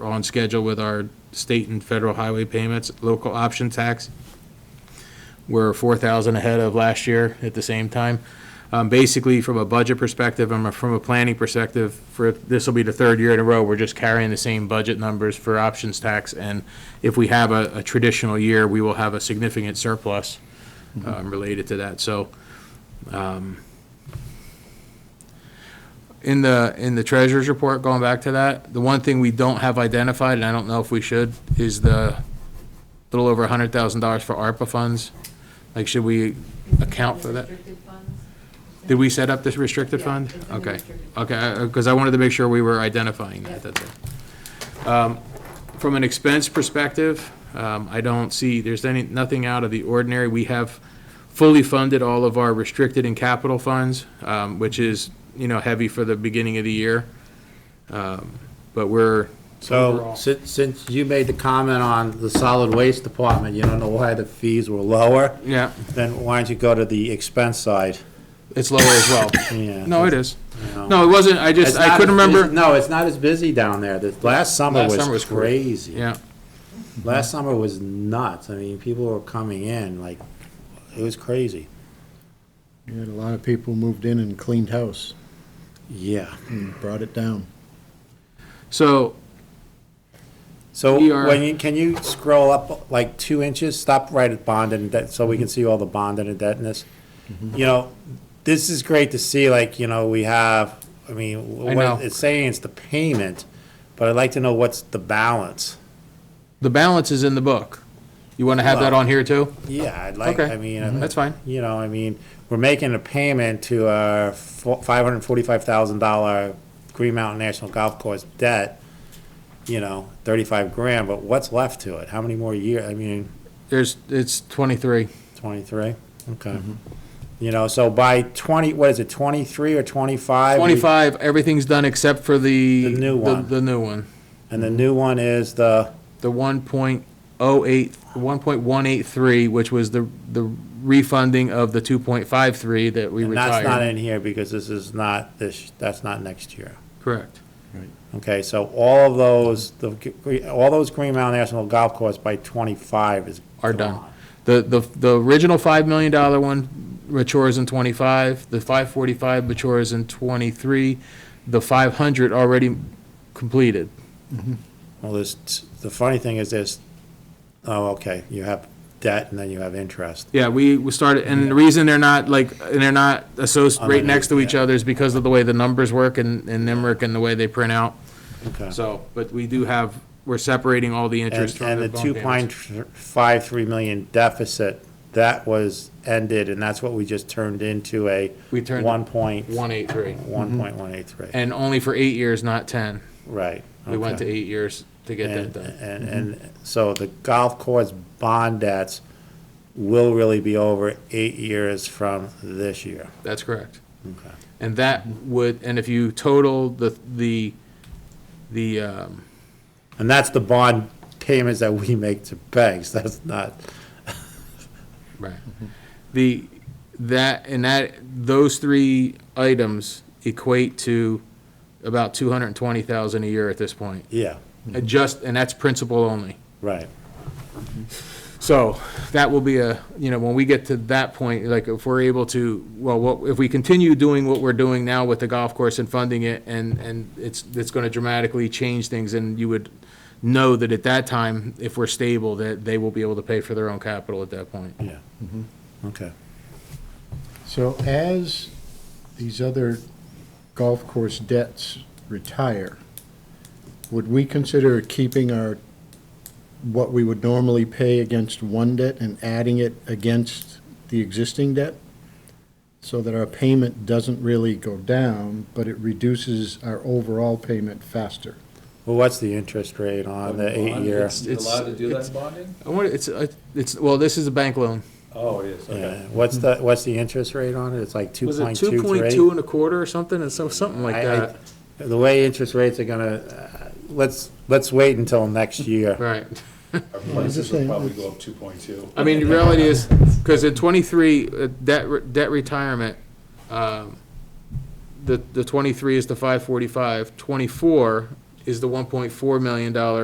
We're on schedule with our state and federal highway payments, local option tax. We're 4,000 ahead of last year at the same time. Um, Basically, from a budget perspective and from a planning perspective, for, this will be the third year in a row, we're just carrying the same budget numbers for options tax. And if we have a a traditional year, we will have a significant surplus um, related to that. So um, in the, in the treasurer's report, going back to that, the one thing we don't have identified, and I don't know if we should, is the little over hundred thousand dollars for ARPA funds. Like, should we account for that? Did we set up this restricted Yeah, fund? it's in the Okay, restricted okay, because I wanted to make sure we were identifying that, that's it. Um, From an expense perspective, um, I don't see, there's any, nothing out of the ordinary. We have fully funded all of our restricted and capital funds, um, which is, you know, heavy for the beginning of the year. Um, But we're, So, Overall. since, since you made the comment on the solid waste department, you don't know why the fees were lower, yeah, then why don't you go to the expense side? it's lower as well. Yeah. No, it is. you know. No, it wasn't, I It's just, I not couldn't as busy- remember. No, it's not as busy down there. The, last summer Last summer was was cra- crazy. Yeah, Last summer was nuts. I mean, people were coming in, like, it was crazy. You had a lot of people moved in and cleaned house Yeah. and brought it down. so, So, We are- when you, can you scroll up like two inches? Stop right at bond and debt, so we can see all the bond and indebtedness. Mm-hmm. You know, this is great to see, like, you know, we have, I mean, I know. what it's saying it's the payment, but I'd like to know what's the balance. the balance is in the book. You want to have that on here too? Yeah, I'd like, Okay. Mm-hmm. I mean, I- That's fine. you know, I mean, we're making a payment to our five hundred forty-five thousand dollar Green Mountain National Golf Course debt, you know, thirty-five grand, but what's left to it? How many more years? I mean, There's, it's 23. 23, okay. Mm-hmm. You know, so by 20, what is it, 23 or 25? 25, everything's done except for the. The new one. The new one. And the new one is the, The 1.08, 1.183, which was the, the refunding of the 2.53 that we and that's not retired. in here because this is not this, that's not next year. Correct. Okay, so all of those, the, gre- all those Green Mountain National Golf Course by 25 is. Are done. gone. The, the, the original $5 million one matures in 25, the 545 matures in 23, the 500 already completed. Well, there's, t- the funny thing is this, oh, okay, you have debt and then you have interest. Yeah, we, we started, and the reason they're not like, and they're not associated, right next to each Yeah. other is because of the way the numbers work and, and NIMRIC and the way they print out. Okay. So, but we do have, we're separating all the interest And, from and the the bond two payments. point five three million deficit, that was ended, and that's what we just turned into a We turned- one point, One eight three, one point one eight three, and only for eight years, not ten. right. We went to okay. eight years to get that And, done. and, and so the golf course bond debts will really be over eight years from this year. That's correct. Okay. And that would, and if you total the, the, the, um, And that's the bond payments that we make to banks, that's not, Right. The, that, and that, those three items equate to about two hundred and twenty thousand a year at this point. yeah, And Just, and that's principal only. right. So that will be a, you know, when we get to that point, like if we're able to, well, what, if we continue doing what we're doing now with the golf course and funding it and, and it's, it's gonna dramatically change things and you would know that at that time, if we're stable, that they will be able to pay for their own capital at that point. Yeah. Okay. So as these other golf course debts retire, would we consider keeping our, what we would normally pay against one debt and adding it against the existing debt? So that our payment doesn't really go down, but it reduces our overall payment faster. Well, what's the interest rate on the eight year? It's- Allowed to do it's- that bonding? I wonder, it's, uh, it's, well, this is a bank loan. Oh, it is, Yeah, okay. what's the, what's the interest rate on it? It's like two Was it point two two point two three? and a quarter or something, and so, something like I- I- that? The way interest rates are gonna, uh, let's, let's wait until next year. Right. Our prices saying, would probably it's- go up two point two. I mean, the reality is, because in twenty-three, uh, debt, re- debt retirement, um, the, the twenty-three is the five forty-five, twenty-four is the one point four million dollar